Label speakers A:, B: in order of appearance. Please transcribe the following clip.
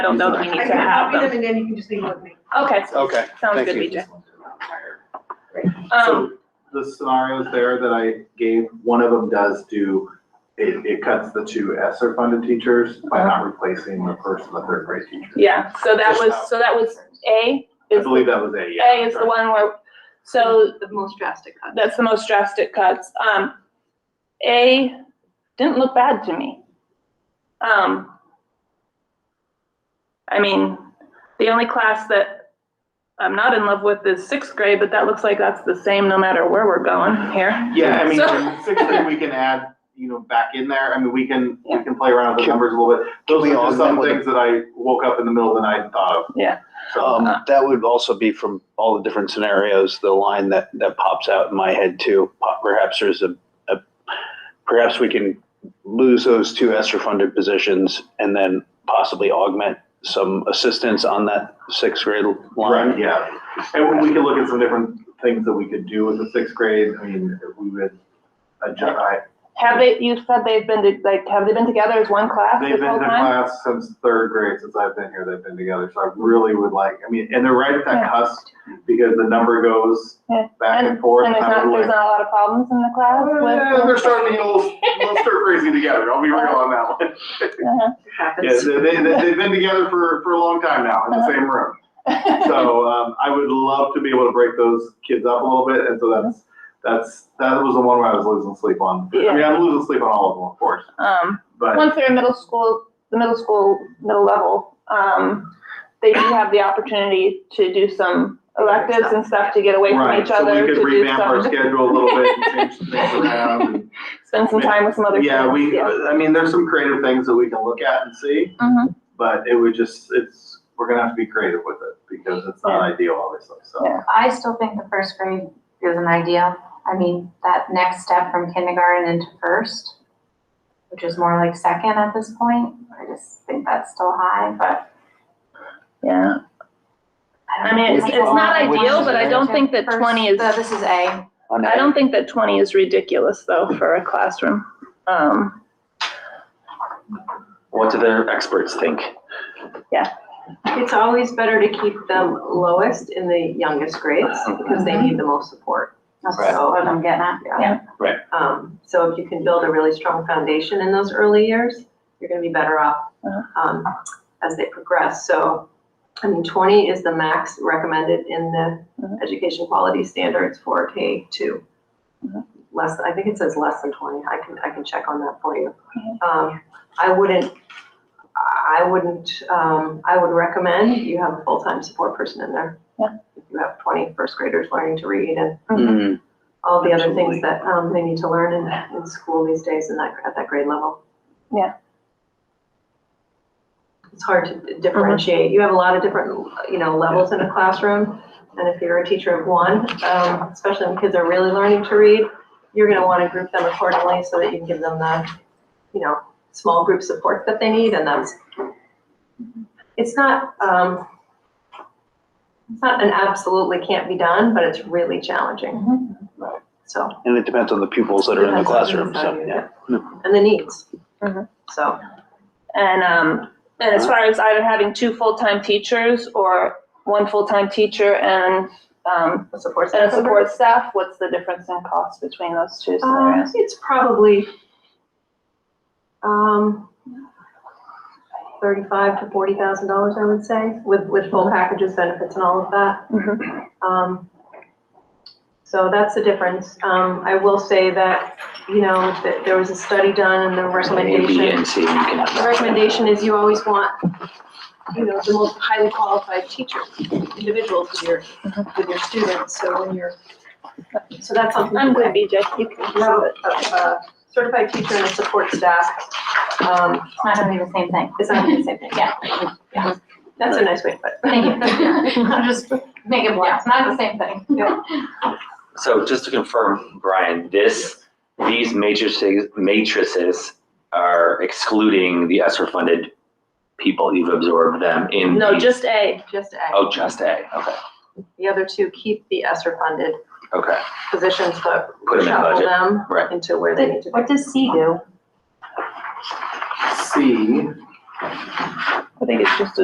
A: I don't know that we
B: I
A: need to
B: can
A: have
B: copy them
A: them.
B: and then you can just leave them with me.
A: Okay,
C: Okay,
A: sounds
C: thank
A: good,
C: you.
A: BJ. Um,
D: So the scenarios there that I gave, one of them does do, it, it cuts the two ESSER funded teachers by not replacing the first and the third grade teachers.
A: yeah, so that
D: Just
A: was,
D: how-
A: so that was A
D: I
A: is,
D: believe that was A, yeah.
A: A is the one where, so
B: The most drastic cut.
A: that's the most drastic cuts. Um, A didn't look bad to me. Um, I mean, the only class that I'm not in love with is sixth grade, but that looks like that's the same no matter where we're going here.
D: Yeah, I mean,
A: So-
D: in sixth grade, we can add, you know, back in there, I mean, we can, we can play around with the
C: Can-
D: numbers a little bit. Those
C: we
D: are just
C: augment
D: some
C: with a-
D: things that I woke up in the middle of the night and thought of.
A: Yeah.
D: So,
C: Um, that would also be from all the different scenarios, the line that, that pops out in my head too. Po- Perhaps there's a, a, perhaps we can lose those two ESSER funded positions and then possibly augment some assistance on that sixth grade
D: right,
C: line.
D: yeah. And we- we could look at some different things that we could do with the sixth grade, I mean, if we would adjust, I,
A: Have they, you said they've been, to- like, have they been together as one class
D: They've
A: this
D: been
A: whole
D: in
A: time?
D: class since third grade, since I've been here, they've been together, so I really would like, I mean, and they're right at that cusp, because the number goes
A: Yeah.
D: back and forth.
A: And there's
D: I
A: not,
D: would
A: there's
D: like-
A: not a lot of problems in the class
D: Eh, They're
A: with?
D: starting to get a little, a little stir crazy together, I'll be real on that one.
A: Uh-huh.
D: Yeah,
B: Happens.
D: they, they, they- they've been together for, for a long time now,
A: Uh-huh.
D: in the same room. So, um, I would love to be able to break those kids up a little bit, and so that's, that's, that was the one where I was losing sleep on. I mean,
A: Yeah.
D: I'm losing sleep on all of them, of course,
A: Um,
D: but,
A: Once they're in middle school, the middle school, middle level, um, they do have the opportunity to do some electives and stuff to get away from
D: right,
A: each
D: so
A: other,
D: we
A: to
D: could
A: do
D: revamp our
A: some,
D: schedule a little bit and change some things around. and-
A: spend some time with some other kids.
D: Yeah, we, I mean, there's some creative things that we can look at and see,
A: Mhm.
D: but it would just, it's, we're gonna have to be creative with it because it's not ideal, obviously, so.
A: Yeah.
E: I still think the first grade is an idea. I mean, that next step from kindergarten into first, which is more like second at this point. I just think that's still high, but
A: Yeah,
E: I
A: I
E: don't.
A: mean, it's,
E: think
A: it's not
E: that's
A: ideal,
E: wrong.
A: but I don't think that
E: First-
A: twenty is,
E: no, This is A.
C: On
A: I
C: that-
A: don't think that twenty is ridiculous though for a classroom. Um,
F: What do their experts think?
B: It's always better to keep them lowest in the youngest grades because they need the most support.
E: That's
F: Right.
E: what I'm getting at.
A: Yeah.
B: Um, so if you can build a really strong foundation in those early years, you're gonna be better off, um, as they progress. So, I mean, twenty is the max recommended in the
A: Mhm.
B: education quality standards for K two. Less, I think it says less than twenty. I can, I can check on that for you. Um, I wouldn't, I wouldn't, um, I would recommend you have a full-time support person in there.
A: Yeah.
B: If you have twenty first graders learning to read and
C: Mm,
B: all the other
C: Absolutely.
B: things that um, they need to learn in, in school these days in that, at that grade level.
A: Yeah.
B: It's hard to differentiate. You have a lot of different, you know, levels in a classroom. And if you're a teacher of one, um, especially when kids are really learning to read, you're gonna wanna group them accordingly so that you can give them the, you know, small group support that they need and that's, it's not, um, it's not an absolutely can't be done, but it's really challenging.
C: Right.
B: So.
C: And it depends on the pupils that are in the
B: Depends
C: classroom,
B: on
C: so,
B: inside,
C: yeah.
B: And the needs.
A: Mhm.
B: So,
A: and, um, and as far as either having two full-time teachers or one full-time teacher and, um,
B: the support staff.
A: And a
B: member.
A: support staff, what's the difference in cost between those two
B: Uh,
A: scenarios?
B: it's probably, um, thirty-five to forty thousand dollars, I would say, with, with full packages, benefits and all of that.
A: Mm-hmm.
B: Um, so that's the difference. Um, I will say that, you know, that there was a study done and the
F: A, B,
B: recommendation
F: and C, you can have
B: The
F: that.
B: recommendation is you always want, you know, the most highly qualified teachers, individuals with your, with your students, so when you're, so that's something.
A: I'm good, BJ, you can.
B: You have a, a certified teacher and a support staff, um,
E: It's not gonna be the same thing.
B: It's not gonna be the same
E: thing. Yeah,
B: that's a nice way to put it.
E: thank you. I'm just making blunt. It's not the same thing.
F: So just to confirm, Brian, this, these matrices, matrices are excluding the ESSER funded people. You've absorbed them in.
A: No,
F: the-
A: just A.
B: Just A,
F: Oh, just A, okay,
B: the other two keep the ESSER funded
F: okay.
B: positions, but
F: Put them in
B: shuffle
F: budget,
B: them
F: right.
B: into where they need to be.
E: What does C do?
D: C
A: I think it's just a